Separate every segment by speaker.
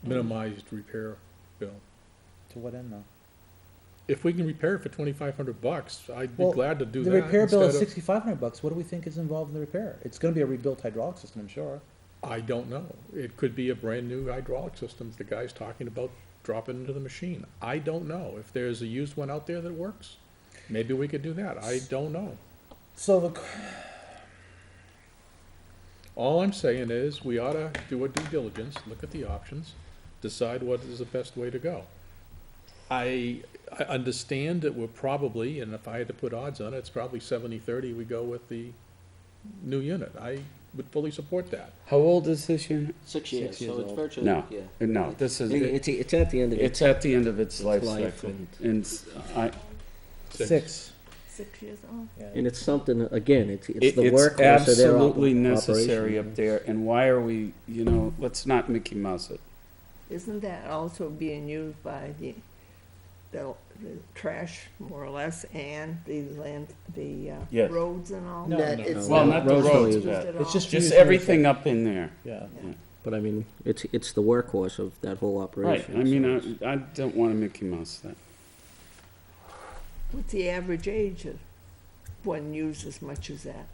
Speaker 1: Mm-hmm.
Speaker 2: minimized repair bill.
Speaker 1: To what end though?
Speaker 2: If we can repair it for twenty-five hundred bucks, I'd be
Speaker 1: Well,
Speaker 2: glad to do that.
Speaker 1: The repair bill is
Speaker 2: instead of-
Speaker 1: sixty-five hundred bucks, what do we think is involved in the repair? It's gonna be a rebuilt hydraulic system, I'm sure.
Speaker 2: I don't know. It could be a brand-new hydraulic system the guy's talking about dropping into the machine. I don't know. If there's a used one out there that works, maybe we could do that. I don't know.
Speaker 1: So the,
Speaker 2: All I'm saying is, we ought to do a due diligence, look at the options, decide what is the best way to go. I, I understand that we're probably, and if I had to put odds on it, it's probably seventy-thirty, we go with the new unit. I would fully support that.
Speaker 3: How old is this unit?
Speaker 4: Six years,
Speaker 1: years
Speaker 4: so it's
Speaker 1: old.
Speaker 4: virtually,
Speaker 3: No,
Speaker 4: yeah.
Speaker 3: no, this is,
Speaker 4: It's, it's at the end of it.
Speaker 3: it's at the end of its life
Speaker 4: life
Speaker 3: cycle.
Speaker 4: and-
Speaker 3: And s- I,
Speaker 1: six,
Speaker 5: Six years old.
Speaker 4: And it's something, again, it's, it's
Speaker 3: it-
Speaker 4: the workhorse of
Speaker 3: it's
Speaker 4: their op-
Speaker 3: absolutely
Speaker 4: operation.
Speaker 3: necessary up there, and why are we, you know, let's not Mickey Mouse it.
Speaker 5: Isn't that also being used by the, the, the trash more or less and the land, the, uh,
Speaker 3: Yes.
Speaker 5: roads and all?
Speaker 1: No,
Speaker 5: That
Speaker 1: no,
Speaker 5: it's
Speaker 4: no.
Speaker 3: Well, not
Speaker 5: not
Speaker 3: the
Speaker 4: Roads don't
Speaker 3: roads,
Speaker 4: use
Speaker 5: used
Speaker 3: but
Speaker 5: at
Speaker 1: It's
Speaker 5: all.
Speaker 1: just-
Speaker 3: just everything up in there.
Speaker 1: yeah.
Speaker 4: But I mean, it's, it's the workhorse of that whole
Speaker 3: Right,
Speaker 4: operation.
Speaker 3: I mean, uh,
Speaker 4: so
Speaker 3: I, I don't wanna Mickey Mouse that.
Speaker 5: What's the average age of one used as much as that?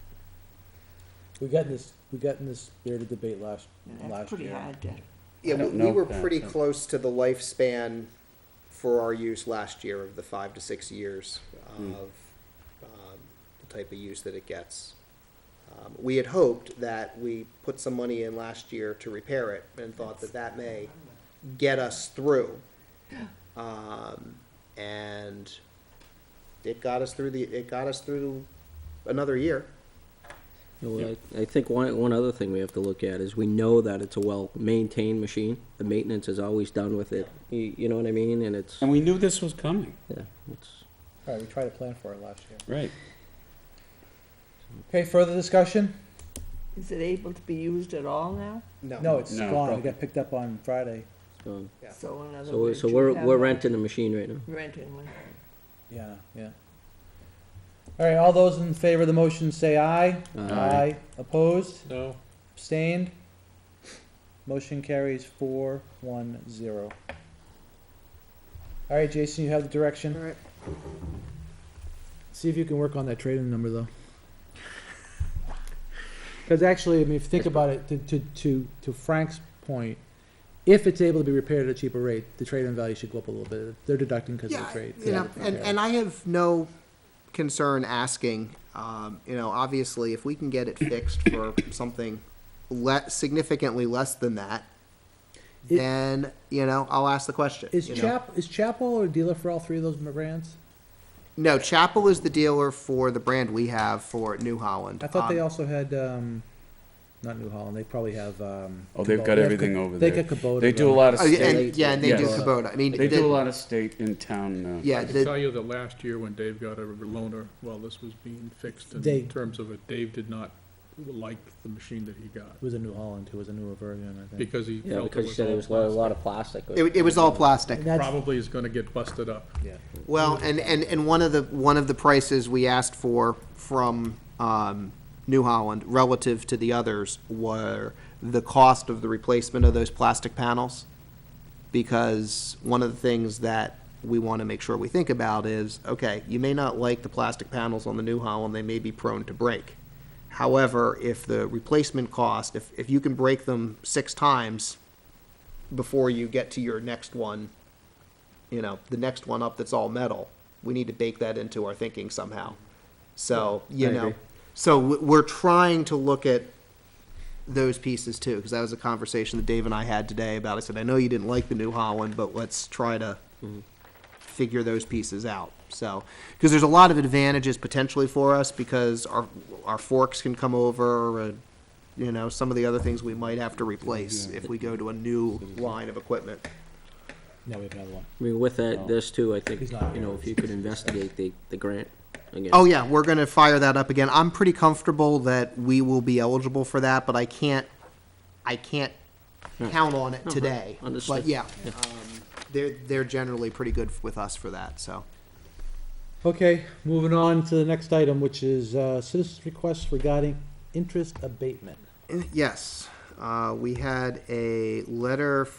Speaker 1: We got in this, we got in this spirited debate last,
Speaker 5: That's
Speaker 1: last
Speaker 5: pretty
Speaker 1: year.
Speaker 5: hard to,
Speaker 6: Yeah,
Speaker 3: I
Speaker 6: we,
Speaker 3: don't
Speaker 6: we
Speaker 3: know
Speaker 6: were
Speaker 3: that,
Speaker 6: pretty
Speaker 3: but-
Speaker 6: close to the lifespan for our use last year of the five to six years
Speaker 3: Hmm.
Speaker 6: of um, the type of use that it gets. Um, we had hoped that we put some money in last year to repair it and thought that that may get us through. Um, and it got us through the, it got us through another year.
Speaker 4: Well, I, I think one, one other thing we have to look at is we know that it's a well-maintained machine. The maintenance is always done with it, you, you know what I mean, and it's,
Speaker 3: And we knew this was coming,
Speaker 4: yeah, it's,
Speaker 1: Alright, we tried to plan for it last year.
Speaker 3: right.
Speaker 1: Okay, further discussion?
Speaker 5: is it able to be used at all now?
Speaker 1: No, it's
Speaker 3: No,
Speaker 1: gone, it
Speaker 3: probably.
Speaker 1: got picked up on Friday,
Speaker 4: um,
Speaker 6: Yeah.
Speaker 5: So in other
Speaker 4: so,
Speaker 5: words.
Speaker 4: so
Speaker 5: you
Speaker 4: we're,
Speaker 5: have
Speaker 4: we're
Speaker 5: one-
Speaker 4: renting the machine right now.
Speaker 5: Renting one.
Speaker 1: yeah, yeah. Alright, all those in favor of the motion say aye.
Speaker 4: Aye.
Speaker 3: Uh,
Speaker 1: Opposed?
Speaker 2: No,
Speaker 1: Abstained? Motion carries four, one, zero. All right, Jason, you have the direction.
Speaker 6: Alright.
Speaker 1: See if you can work on that trade-in number, though. Because actually, I mean, if you think about it, to, to, to, to Frank's point, if it's able to be repaired at a cheaper rate, the trade-in value should go up a little bit. They're deducting because of the trade.
Speaker 6: You know, and, and I have no concern asking, um, you know, obviously, if we can get it fixed for something le- significantly less than that,
Speaker 1: It-
Speaker 6: then, you know, I'll ask the question.
Speaker 1: Is
Speaker 6: you know.
Speaker 1: Chap, is Chapel a dealer for all three of those brands?
Speaker 6: No, Chapel is the dealer for the brand we have for New Holland.
Speaker 1: I thought they
Speaker 6: Um,
Speaker 1: also had, um, not New Holland, they probably have, um.
Speaker 3: Oh, they've
Speaker 1: Kubota.
Speaker 3: got
Speaker 1: They have
Speaker 3: everything
Speaker 1: Ku-
Speaker 3: over
Speaker 1: They
Speaker 3: there.
Speaker 1: got Kubota.
Speaker 3: They do a
Speaker 1: though.
Speaker 3: lot of
Speaker 6: Oh, yeah,
Speaker 3: state,
Speaker 6: and, yeah, and they do
Speaker 3: Yes.
Speaker 6: Kubota. I mean,
Speaker 3: they
Speaker 6: the-
Speaker 3: do a lot of state in town, uh,
Speaker 6: Yeah,
Speaker 2: I can
Speaker 6: the,
Speaker 2: tell you that last year when Dave got a loaner, while this was being fixed
Speaker 1: They-
Speaker 2: in terms of it, Dave did not like the machine that he got
Speaker 1: It was a New Holland too, it was a newer version, I think.
Speaker 2: because he
Speaker 4: Yeah,
Speaker 2: felt it
Speaker 4: because you
Speaker 2: was
Speaker 4: said it
Speaker 2: all
Speaker 4: was a lot- a
Speaker 2: plastic.
Speaker 4: lot of plastic.
Speaker 6: it, it was all plastic.
Speaker 1: And that's-
Speaker 2: Probably is gonna get busted up.
Speaker 6: Well, and, and, and one of the, one of the prices we asked for from, um, New Holland relative to the others were the cost of the replacement of those plastic panels. Because one of the things that we want to make sure we think about is, okay, you may not like the plastic panels on the New Holland, they may be prone to break. However, if the replacement cost, if, if you can break them six times before you get to your next one, you know, the next one up that's all metal, we need to bake that into our thinking somehow. So, you
Speaker 4: I
Speaker 6: know,
Speaker 4: agree.
Speaker 6: so we- we're trying to look at those pieces too, because that was a conversation that Dave and I had today about, I said, I know you didn't like the New Holland, but let's try to
Speaker 4: Mm-hmm.
Speaker 6: figure those pieces out. So, because there's a lot of advantages potentially for us because our, our forks can come over and, you know, some of the other things we might have to replace if we go to a new
Speaker 4: Mm-hmm.
Speaker 6: line of equipment.
Speaker 1: No, we have another one.
Speaker 4: I mean, with that, this too, I think,
Speaker 1: He's not
Speaker 4: you know, if you could investigate the, the grant again.
Speaker 6: Oh, yeah, we're going to fire that up again. I'm pretty comfortable that we will be eligible for that, but I can't, I can't count on it today.
Speaker 4: Understood.
Speaker 6: But yeah, um, they're, they're generally pretty good with us for that, so.
Speaker 1: Okay, moving on to the next item, which is, uh, citizens' requests regarding interest abatement.
Speaker 6: Yes, uh, we had a letter